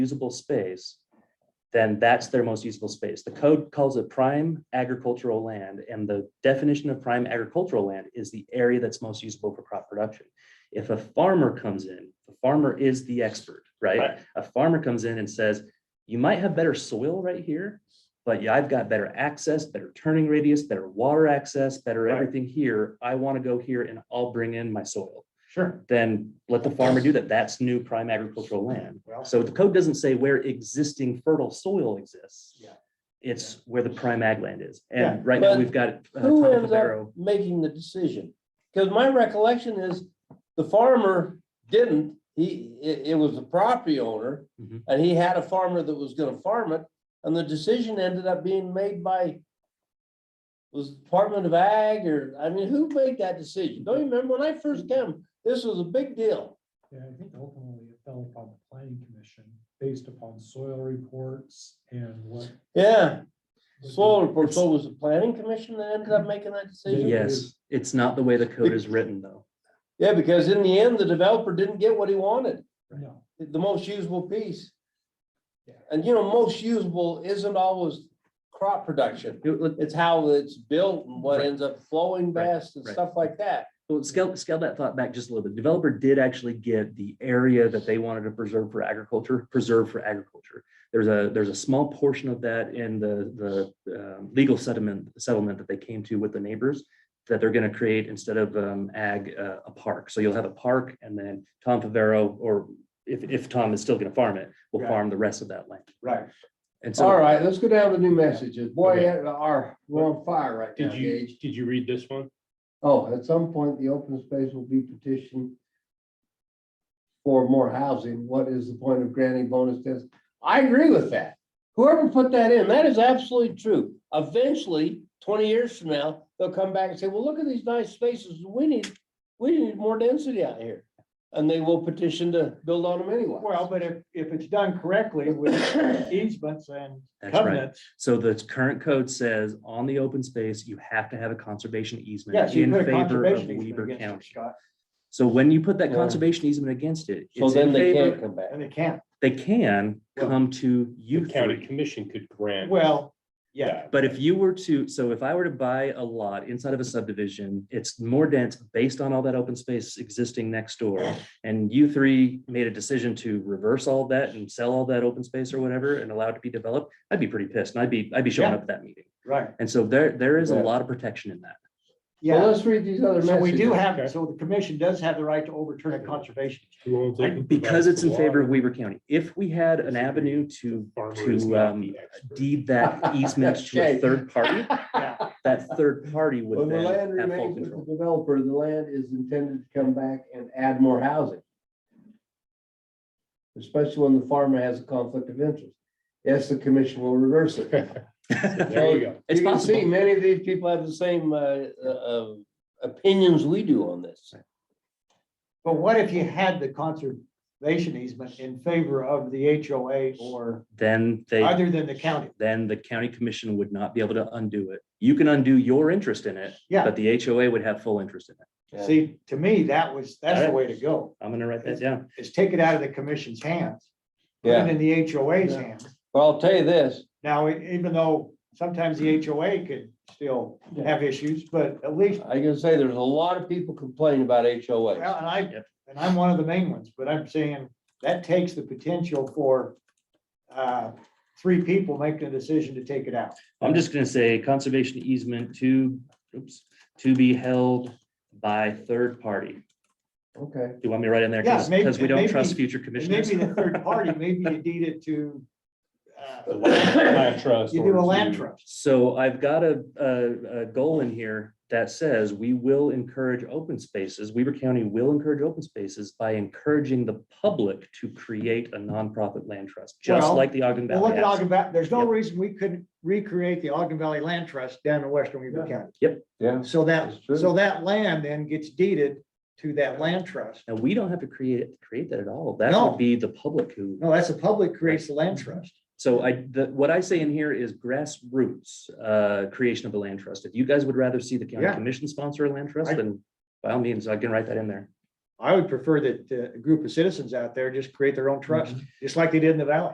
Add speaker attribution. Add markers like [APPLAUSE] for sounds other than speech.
Speaker 1: usable space, then that's their most usable space. The code calls it prime agricultural land, and the definition of prime agricultural land is the area that's most usable for crop production. If a farmer comes in, the farmer is the expert, right?
Speaker 2: Right.
Speaker 1: A farmer comes in and says, you might have better soil right here, but yeah, I've got better access, better turning radius, better water access, better
Speaker 2: Right.
Speaker 1: everything here. I want to go here and I'll bring in my soil.
Speaker 2: Sure.
Speaker 1: Then let the farmer do that. That's new prime agricultural land.
Speaker 2: Well,
Speaker 1: So the code doesn't say where existing fertile soil exists.
Speaker 2: Yeah.
Speaker 1: It's where the prime ag land is.
Speaker 2: Yeah,
Speaker 1: And right now,
Speaker 3: but
Speaker 1: we've got. uh,
Speaker 3: Who
Speaker 1: Tom
Speaker 3: ends up
Speaker 1: Favero.
Speaker 3: making the decision? Because my recollection is the farmer didn't, he, it, it was the property owner.
Speaker 1: Mhm.
Speaker 3: And he had a farmer that was gonna farm it, and the decision ended up being made by was Department of Ag or, I mean, who made that decision? Don't you remember when I first came, this was a big deal.
Speaker 4: Yeah, I think ultimately it fell upon the planning commission based upon soil reports and what.
Speaker 3: Yeah,
Speaker 4: what the-
Speaker 3: soil report, so was the planning commission that ended up making that decision?
Speaker 1: Yes, it's not the way the code is written, though.
Speaker 3: Yeah, because in the end, the developer didn't get what he wanted.
Speaker 4: No,
Speaker 3: the most usable piece.
Speaker 4: Yeah.
Speaker 3: And you know, most usable isn't always crop production.
Speaker 1: It- let-
Speaker 3: It's how it's built and what
Speaker 1: Right.
Speaker 3: ends up flowing
Speaker 1: Right,
Speaker 3: best and
Speaker 1: right.
Speaker 3: stuff like that.
Speaker 1: Well, scale, scale that thought back just a little bit. Developer did actually get the area that they wanted to preserve for agriculture, preserved for agriculture. There's a, there's a small portion of that in the, the um, legal settlement, settlement that they came to with the neighbors that they're going to create instead of um, ag, uh, a park. So you'll have a park and then Tom Favero, or if, if Tom is still going to farm it, will
Speaker 2: Right.
Speaker 1: farm the rest of that land.
Speaker 2: right.
Speaker 1: And
Speaker 5: All
Speaker 1: so,
Speaker 5: right, let's go down to new messages. Boy,
Speaker 2: Okay.
Speaker 5: uh, our, we're on fire right now,
Speaker 2: Did you,
Speaker 5: Gage.
Speaker 2: did you read this one?
Speaker 5: Oh, at some point, the open space will be petitioned for more housing. What is the point of granting bonus tests? I agree with that.
Speaker 3: Whoever put that in, that is absolutely true. Eventually, twenty years from now, they'll come back and say, well, look at these nice spaces. We need, we need more density out here. And they will petition to build on them anyway.
Speaker 2: Well, but if, if it's done correctly with easements and
Speaker 1: That's right.
Speaker 2: covenants.
Speaker 1: so the current code says on the open space, you have to have a conservation easement
Speaker 2: Yes, you
Speaker 1: in
Speaker 2: put a
Speaker 1: favor of
Speaker 2: conservation easement
Speaker 1: Weber
Speaker 2: against it,
Speaker 1: County.
Speaker 2: Scott,
Speaker 1: So when you put that
Speaker 3: Yeah.
Speaker 1: conservation easement against it,
Speaker 3: So
Speaker 1: it's
Speaker 3: then
Speaker 1: in
Speaker 3: they
Speaker 1: favor,
Speaker 3: can't come back.
Speaker 2: and it can't.
Speaker 1: they can
Speaker 2: Well,
Speaker 1: come to you
Speaker 6: The county
Speaker 1: three.
Speaker 6: commission could grant.
Speaker 2: Well, yeah,
Speaker 1: But if you were to, so if I were to buy a lot inside of a subdivision, it's more dense based on all that open space existing next door. And you three made a decision to reverse all that and sell all that open space or whatever and allow it to be developed, I'd be pretty pissed and I'd be, I'd be showing
Speaker 2: Yeah.
Speaker 1: up at that meeting.
Speaker 2: right.
Speaker 1: And so there, there is a
Speaker 5: Yeah.
Speaker 1: lot of protection in that.
Speaker 5: Well,
Speaker 2: Yeah,
Speaker 5: let's read these other
Speaker 2: so we
Speaker 5: messages.
Speaker 2: do have, so the commission does have the right to overturn a conservation.
Speaker 6: Who owns it? Who
Speaker 1: Because
Speaker 6: provides
Speaker 1: it's
Speaker 6: the
Speaker 1: in favor of
Speaker 6: water?
Speaker 1: Weaver County. If we had an
Speaker 6: Disagree.
Speaker 1: avenue to,
Speaker 6: Farmer is
Speaker 1: to,
Speaker 6: not
Speaker 1: um,
Speaker 6: the expert.
Speaker 1: deed that easement to a
Speaker 5: Okay.
Speaker 1: third party,
Speaker 2: Yeah.
Speaker 1: that third party
Speaker 5: When
Speaker 1: would
Speaker 5: the
Speaker 1: then
Speaker 5: land
Speaker 1: have full
Speaker 5: remains with
Speaker 1: control.
Speaker 5: the developer, the land is intended to come back and add more housing. Especially when the farmer has a conflict of interest. Yes, the commission will reverse it.
Speaker 6: There you go.
Speaker 1: [LAUGHS] It's
Speaker 3: You can see
Speaker 1: possible.
Speaker 3: many of these people have the same uh, uh, uh, opinions we do on this.
Speaker 2: But what if you had the conservation easement in favor of the HOA or
Speaker 1: Then they,
Speaker 2: other than the county?
Speaker 1: then the county commission would not be able to undo it. You can undo your interest in it,
Speaker 2: Yeah,
Speaker 1: but the HOA would have full interest in it.
Speaker 3: Yeah.
Speaker 2: see, to me, that was, that's the way to go,
Speaker 1: I'm gonna write that down.
Speaker 2: is take it out of the commission's hands. put it in the HOA's
Speaker 5: Yeah.
Speaker 2: hands.
Speaker 3: Well, I'll tell you this,
Speaker 2: Now, e- even though sometimes the HOA could still
Speaker 5: Yeah.
Speaker 2: have issues, but at least,
Speaker 3: I can say there's a lot of people complaining about HOA.
Speaker 2: well, and I,
Speaker 1: Yep.
Speaker 2: and I'm one of the main ones, but I'm saying that takes the potential for uh, three people making a decision to take it out.
Speaker 1: I'm just gonna say conservation easement to, oops, to be held by third party. Do
Speaker 2: [COUGHS]
Speaker 5: Okay,
Speaker 1: you want me to write in there?
Speaker 2: Yeah,
Speaker 1: Because,
Speaker 2: maybe-
Speaker 1: we don't
Speaker 2: maybe-
Speaker 1: trust future
Speaker 2: And
Speaker 1: commissioners.
Speaker 2: Maybe the third party, maybe you deed it to, uh,
Speaker 6: The land- land trust
Speaker 2: [COUGHS] you do a
Speaker 6: or
Speaker 2: land
Speaker 6: to-
Speaker 2: trust.
Speaker 1: So I've got a, a, a goal in here that says we will encourage open spaces. Weaver County will encourage open spaces by encouraging the public to create a nonprofit land trust, just
Speaker 2: Well,
Speaker 1: like the Ogden
Speaker 2: Well, look
Speaker 1: Valley.
Speaker 2: at
Speaker 1: has.
Speaker 2: Ogden Valley, there's no
Speaker 1: Yep.
Speaker 2: reason we couldn't recreate the Ogden Valley Land Trust down in western Weaver County.
Speaker 3: Yeah.
Speaker 2: So that,
Speaker 3: That's true.
Speaker 2: so that land then gets deeded to that land trust.
Speaker 1: And we don't have to create, it create that at all. That
Speaker 2: No.
Speaker 1: would be the public who,
Speaker 2: No, that's the public creates the land trust.
Speaker 1: so I, the, what I say in here is grassroots, uh, creation of a land trust. If you guys would rather see the county
Speaker 2: Yeah.
Speaker 1: commission sponsor a land trust,
Speaker 2: I-
Speaker 1: then by all means, I can write that in there.
Speaker 2: I would prefer that uh, a group of citizens out there just create their own trust, just like they did in the valley.